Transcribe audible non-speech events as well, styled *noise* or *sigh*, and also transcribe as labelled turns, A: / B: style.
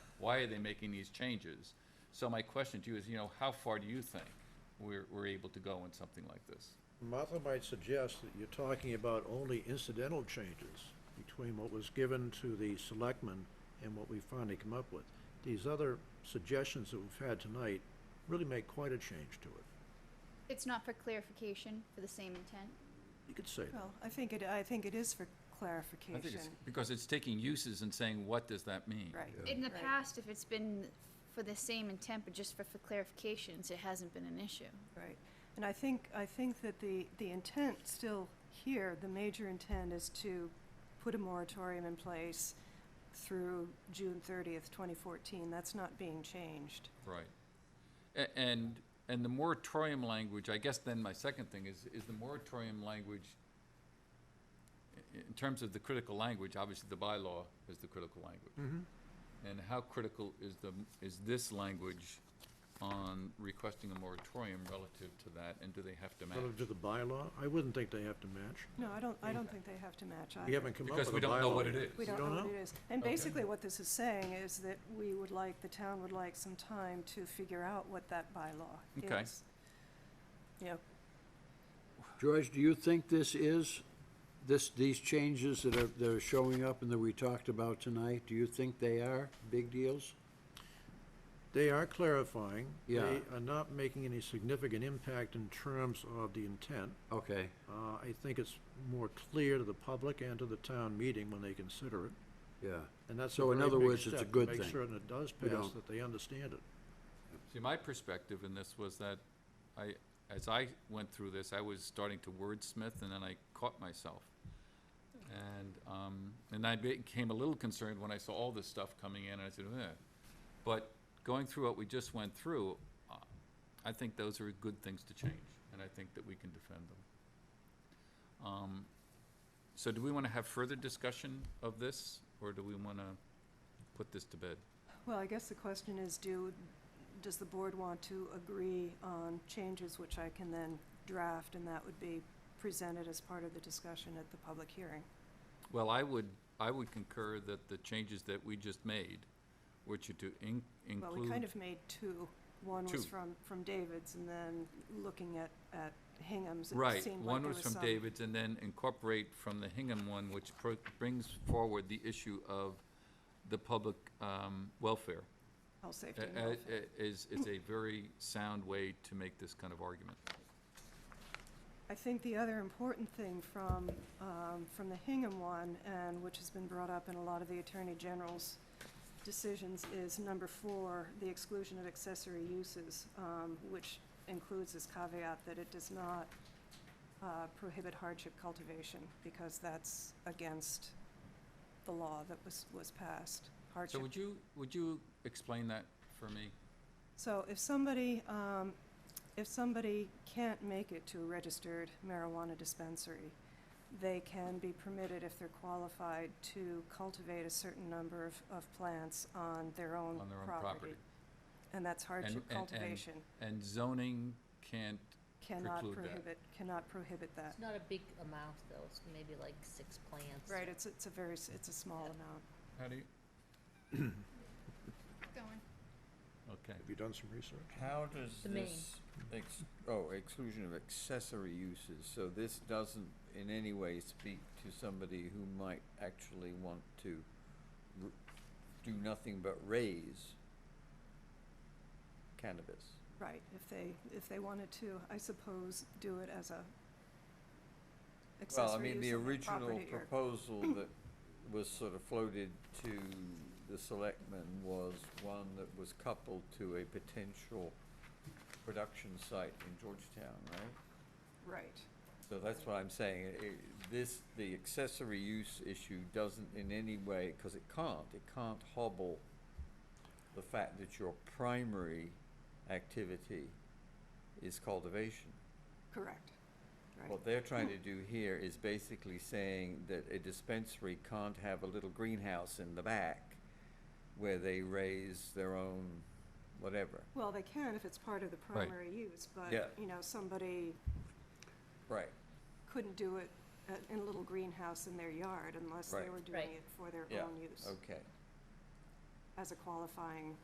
A: why are they making these changes? So my question to you is, you know, how far do you think we're, we're able to go in something like this?
B: Martha might suggest that you're talking about only incidental changes between what was given to the selectmen and what we finally come up with. These other suggestions that we've had tonight really make quite a change to it.
C: It's not for clarification, for the same intent.
B: You could say that.
D: Well, I think it, I think it is for
A: I think
D: clarification.
A: it's, because it's taking uses and saying, what does that mean?
D: Right.
C: In the
D: Right.
C: past, if it's been for the same intent, but just for, for clarifications, it hasn't been an issue.
D: Right. And I think, I think that the, the intent still here, the major intent is to put a moratorium in place through June thirtieth, twenty fourteen. That's not being changed.
A: Right. A- And, and the moratorium language, I guess then my second thing is, is the moratorium language, i- in terms of the critical language, obviously the bylaw is the critical language. And how critical is the, is this language on requesting a moratorium relative to that, and do they have to match?
B: Relative to the bylaw, I wouldn't think they have to match.
D: No, I don't, I don't think they have to match either.
B: We haven't come up with
A: Because
B: a bylaw.
A: we don't know what it
B: yet.
A: is.
D: We
B: You
D: don't know what
B: know?
D: it is. And
A: Okay.
D: basically what this is saying is that we would like, the town would like some time to figure out what that bylaw
A: Okay.
D: is. You know,
E: George, do you think this is, this, these changes that are, that are showing up and that we talked about tonight, do you think they are big deals?
B: They are clarifying.
E: Yeah.
B: They are not making any significant impact in terms of the intent.
E: Okay,
B: Uh, I think it's more clear to the public and to the town meeting when they consider it.
E: yeah.
B: And that's a
E: So in
B: very
E: other
B: big
E: words, it's a
B: step to
E: good
B: Make
E: thing.
B: certain it does
E: We
B: pass,
E: don't-
B: that they understand it.
A: See, my perspective in this was that I, as I went through this, I was starting to wordsmith and then I caught myself. And, um, and I became a little concerned when I saw all this stuff coming in and I said, eh. But going through what we just went through, uh, I think those are good things to change and I think that we can defend them. Um, so do we wanna have further discussion of this or do we wanna put this to bed?
D: Well, I guess the question is, do, does the board want to agree on changes which I can then draft, and that would be presented as part of the discussion at the public hearing?
A: Well, I would, I would concur that the changes that we just made, which are to in-
D: Well, we
A: include,
D: kind of made two. One
A: Two.
D: was from, from David's, and then looking at, at Hingham's, it
A: right,
D: seemed like
A: one
D: there
A: was
D: was
A: from
D: some.
A: David's, and then incorporate from the Hingham one, which pro- brings forward the issue of the public um, welfare.
D: Health, safety,
A: Uh,
D: and
A: uh,
D: welfare.
A: uh, Is, is a very sound way to make this kind of argument.
D: I think the other important thing from, um, from the Hingham one, and which has been brought up in a lot of the Attorney General's decisions, is number four, the exclusion of accessory uses, um, which includes this caveat that it does not, uh, prohibit hardship cultivation, because that's against the law that was, was passed,
A: So
D: hardship
A: would you, would you explain that for me?
D: so if somebody, um, if somebody can't make it to a registered marijuana dispensary, they can be permitted, if they're qualified, to cultivate a certain number of, of plants on their own
A: On their own property.
D: property. And that's hardship
A: and- and-
D: cultivation,
A: And zoning can't,
D: cannot
A: preclude that.
D: prohibit, cannot prohibit that.
F: It's not a big amount though, it's maybe like six plants.
D: Right, it's, it's a very, s- it's a small amount.
A: how do you,
C: Going.
A: okay.
B: Have you done some research?
G: How does
F: The main.
G: this, ex- oh, exclusion of accessory uses, so this doesn't in any way speak to somebody who might actually want to r- do nothing but raise cannabis?
D: Right, if they, if they wanted to, I suppose, do it as a
G: Well, I
D: accessory
G: mean, the
D: use on their
G: original
D: property or- *clears throat*
G: proposal that was sort of floated to the selectmen was one that was coupled to a potential production site in Georgetown, right?
D: Right.
G: So that's what I'm saying, i- i- this, the accessory use issue doesn't in any way, because it can't, it can't hobble the fact that your primary activity is cultivation.
D: Correct, right.
G: What they're trying to do here is basically saying that a dispensary can't have a little greenhouse in the back where they raise their own whatever.
D: Well, they can if it's part of the
A: Right.
D: primary use, but,
G: Yeah.
D: you know, somebody
G: Right.
D: couldn't do it at- in a little greenhouse in their yard unless they
G: Right.
D: were doing
F: Right.
D: it for their
G: Yeah,
D: own use.
G: okay.
D: I as a qualifying